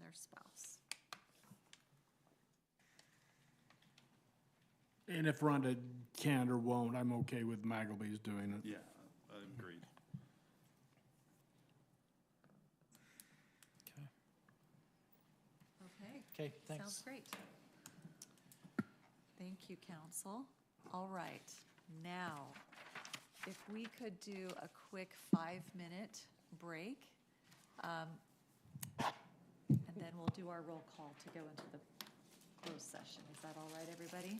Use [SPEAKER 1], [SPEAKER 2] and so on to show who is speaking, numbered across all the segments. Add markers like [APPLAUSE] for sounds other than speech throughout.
[SPEAKER 1] their spouse.
[SPEAKER 2] And if Rhonda can or won't, I'm okay with Maggleby's doing it.
[SPEAKER 3] Yeah, I agreed.
[SPEAKER 1] Okay,
[SPEAKER 4] Okay, thanks.
[SPEAKER 1] sounds great. Thank you, council. All right, now, if we could do a quick five-minute break, um, and then we'll do our roll call to go into the closed session. Is that all right, everybody?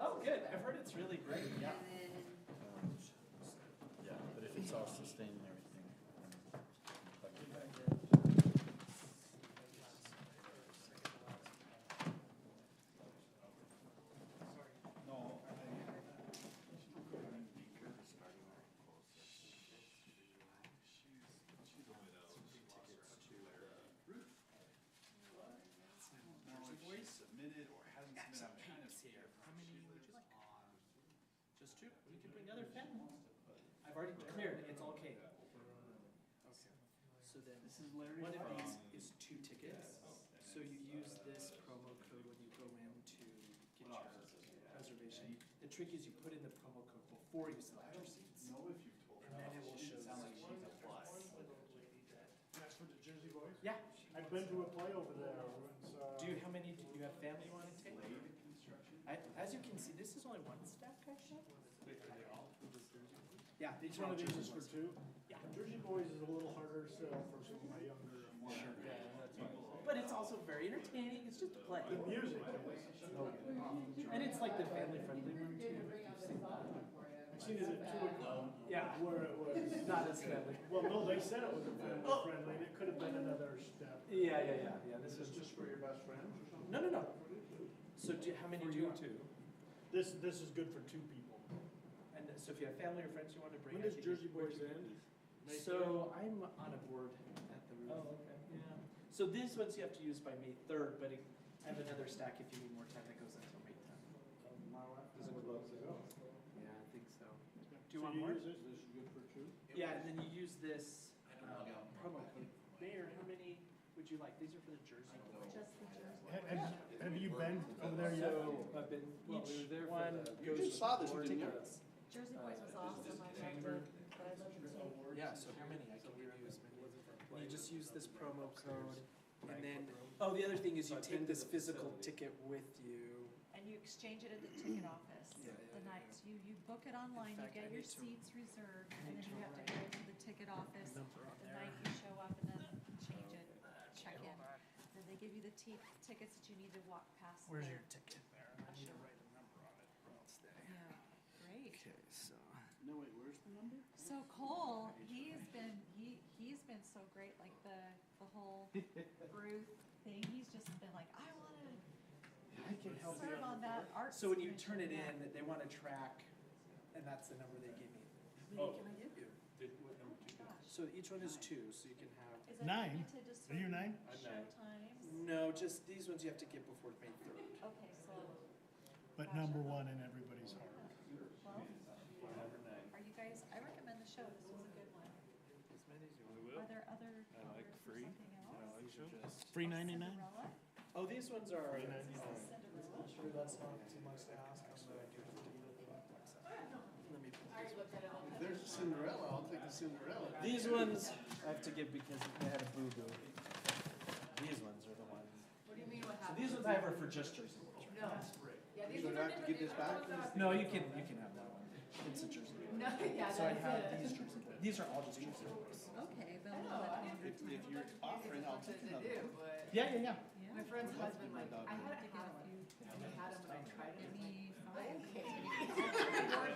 [SPEAKER 5] Oh, good. I've heard it's really great. Yeah.
[SPEAKER 6] Yeah, but if it's all sustained and everything, then plug it back in.
[SPEAKER 3] Submitted or hasn't submitted, I'm kind of scared.
[SPEAKER 5] Just two. You can bring the other pen. I've already cleared. It's all cake. So then, one of these is two tickets. So you use this promo code when you go in to get your reservation. The trick is you put in the promo code before you select your seats. And then it will show you the plus.
[SPEAKER 7] That's for the Jersey Boys?
[SPEAKER 5] Yeah.
[SPEAKER 7] I've been to a play over there, and uh, so.
[SPEAKER 5] Do you, how many, do you have family you wanna take? I, as you can see, this is only one stack actually. Yeah.
[SPEAKER 7] Each one of these is for
[SPEAKER 5] Jersey
[SPEAKER 7] two?
[SPEAKER 5] Yeah.
[SPEAKER 7] Jersey Boys is a little harder sell for some of my younger.
[SPEAKER 5] ones. But it's also very entertaining, it's just a play.
[SPEAKER 7] The music.
[SPEAKER 5] And it's like the family friendly one too. if you've seen that.
[SPEAKER 7] I've seen it at two o'clock
[SPEAKER 5] Yeah,
[SPEAKER 7] where it was.
[SPEAKER 5] not as family.
[SPEAKER 7] Well, no, they said it was a family friendly, and it could have been another step.
[SPEAKER 5] Yeah, yeah, yeah, yeah, this
[SPEAKER 7] This
[SPEAKER 5] is,
[SPEAKER 7] is just for your best friends or something?
[SPEAKER 5] no, no, no. So do, how many do you want?
[SPEAKER 7] This, this is good for two people.
[SPEAKER 5] And so if you have family or friends you wanna bring.
[SPEAKER 7] When
[SPEAKER 5] I
[SPEAKER 7] does
[SPEAKER 5] think
[SPEAKER 7] Jersey
[SPEAKER 5] you- where'd
[SPEAKER 7] Boys
[SPEAKER 5] you-
[SPEAKER 7] end? May
[SPEAKER 5] So I'm on a board at the roof.
[SPEAKER 7] Oh, okay.
[SPEAKER 5] Yeah. So these ones you have to use by May third, but I have another stack if you need more time that goes until May tenth.
[SPEAKER 7] Does it close it up?
[SPEAKER 5] Oh, Yeah, I think so. Do you
[SPEAKER 7] So
[SPEAKER 5] want more?
[SPEAKER 7] use this, this is good for two?
[SPEAKER 5] Yeah, and then you use this uh, promo code. Mayor, how many would you like? These are for the Jersey.
[SPEAKER 1] Just the Jersey.
[SPEAKER 7] Have, have you been over there yet?
[SPEAKER 5] So uh, I've been, each one
[SPEAKER 3] You
[SPEAKER 5] goes
[SPEAKER 3] just
[SPEAKER 5] with
[SPEAKER 3] saw this one,
[SPEAKER 5] four
[SPEAKER 3] didn't you?
[SPEAKER 5] tickets.
[SPEAKER 1] Jersey Boys was awesome. I loved it, but I loved it too.
[SPEAKER 5] Yeah, so how many? I can give you as many. And you just use this promo code and then, oh, the other thing is you take this physical ticket with you.
[SPEAKER 1] And you exchange it at the ticket office
[SPEAKER 5] Yeah, yeah,
[SPEAKER 1] the
[SPEAKER 5] yeah,
[SPEAKER 1] night, you, you book it online, you
[SPEAKER 5] fact,
[SPEAKER 1] get
[SPEAKER 5] I
[SPEAKER 1] your
[SPEAKER 5] need to-
[SPEAKER 1] seats reserved,
[SPEAKER 5] I
[SPEAKER 1] and then
[SPEAKER 5] need to
[SPEAKER 1] you have to go to the ticket office
[SPEAKER 5] Number on
[SPEAKER 1] the
[SPEAKER 5] there. Oh,
[SPEAKER 1] night you show up and then change it, check in. Then they give you the t- tickets that you need to walk past.
[SPEAKER 5] Where's
[SPEAKER 1] the-
[SPEAKER 5] your ticket there? I need to write a number on it or else they.
[SPEAKER 1] Yeah, great.
[SPEAKER 5] Okay, so.
[SPEAKER 3] No, wait, where's the number?
[SPEAKER 1] So Cole, he has been, he, he's been so great, like the, the
[SPEAKER 5] [LAUGHS]
[SPEAKER 1] whole Ruth thing, he's just been like, I wanna
[SPEAKER 5] I can help
[SPEAKER 1] serve on that art.
[SPEAKER 5] So when you
[SPEAKER 1] commission."
[SPEAKER 5] turn it
[SPEAKER 1] Yeah.
[SPEAKER 5] in, they want a track, and that's the number they give me. How many can I give you?
[SPEAKER 1] Oh
[SPEAKER 5] So each one is two, so you can have,
[SPEAKER 1] Is that
[SPEAKER 2] Nine.
[SPEAKER 1] limited to
[SPEAKER 2] Are you
[SPEAKER 1] certain
[SPEAKER 2] nine?
[SPEAKER 3] I'm
[SPEAKER 1] show
[SPEAKER 3] nine.
[SPEAKER 1] times?
[SPEAKER 5] no, just these ones you have to get before May third.
[SPEAKER 1] Okay, so,
[SPEAKER 2] But number one in everybody's heart.
[SPEAKER 1] well, are you guys, I recommend the show, this was a good one.
[SPEAKER 5] As many as you want.
[SPEAKER 1] Are there other covers or something else?
[SPEAKER 2] Three ninety-nine?
[SPEAKER 1] Cinderella?
[SPEAKER 5] Oh, these ones are.
[SPEAKER 1] Is
[SPEAKER 5] um,
[SPEAKER 1] this Cinderella?
[SPEAKER 5] Sure, that's not too much to ask. I'm gonna do it. Let me pull these ones.
[SPEAKER 3] If there's a Cinderella, I'll take the Cinderella.
[SPEAKER 5] These ones I have to give because they had a boo-boo. These ones are the ones.
[SPEAKER 8] What do you mean what
[SPEAKER 5] So
[SPEAKER 8] happened?
[SPEAKER 5] these ones I have are for just Jersey Boys.
[SPEAKER 8] No. Yeah, these
[SPEAKER 3] So
[SPEAKER 8] ones
[SPEAKER 3] do I
[SPEAKER 8] are
[SPEAKER 3] have to
[SPEAKER 8] different.
[SPEAKER 3] give this
[SPEAKER 8] These are the ones
[SPEAKER 5] No, you can, you can have that one. It's a Jersey Boys.
[SPEAKER 8] that- [LAUGHS] No, yeah,
[SPEAKER 5] So I
[SPEAKER 8] that
[SPEAKER 5] have
[SPEAKER 8] is
[SPEAKER 5] these
[SPEAKER 8] it.
[SPEAKER 5] Jersey Boys. These are all just Jersey Boys.
[SPEAKER 1] Oh, Okay, but
[SPEAKER 8] I
[SPEAKER 1] we'll
[SPEAKER 8] know,
[SPEAKER 1] let it-
[SPEAKER 8] I didn't.
[SPEAKER 3] If, if you're offering, I'll take another.
[SPEAKER 8] Sometimes they do, but
[SPEAKER 5] Yeah, yeah, yeah.
[SPEAKER 8] My
[SPEAKER 1] yeah.
[SPEAKER 8] friend's husband,
[SPEAKER 3] my
[SPEAKER 8] like,
[SPEAKER 3] dog
[SPEAKER 8] I
[SPEAKER 3] do.
[SPEAKER 8] had a
[SPEAKER 1] Take
[SPEAKER 8] hat
[SPEAKER 1] out a
[SPEAKER 8] one.
[SPEAKER 1] few-
[SPEAKER 8] I had him when I tried it.
[SPEAKER 1] Give me
[SPEAKER 8] I
[SPEAKER 1] five.
[SPEAKER 8] was like, okay.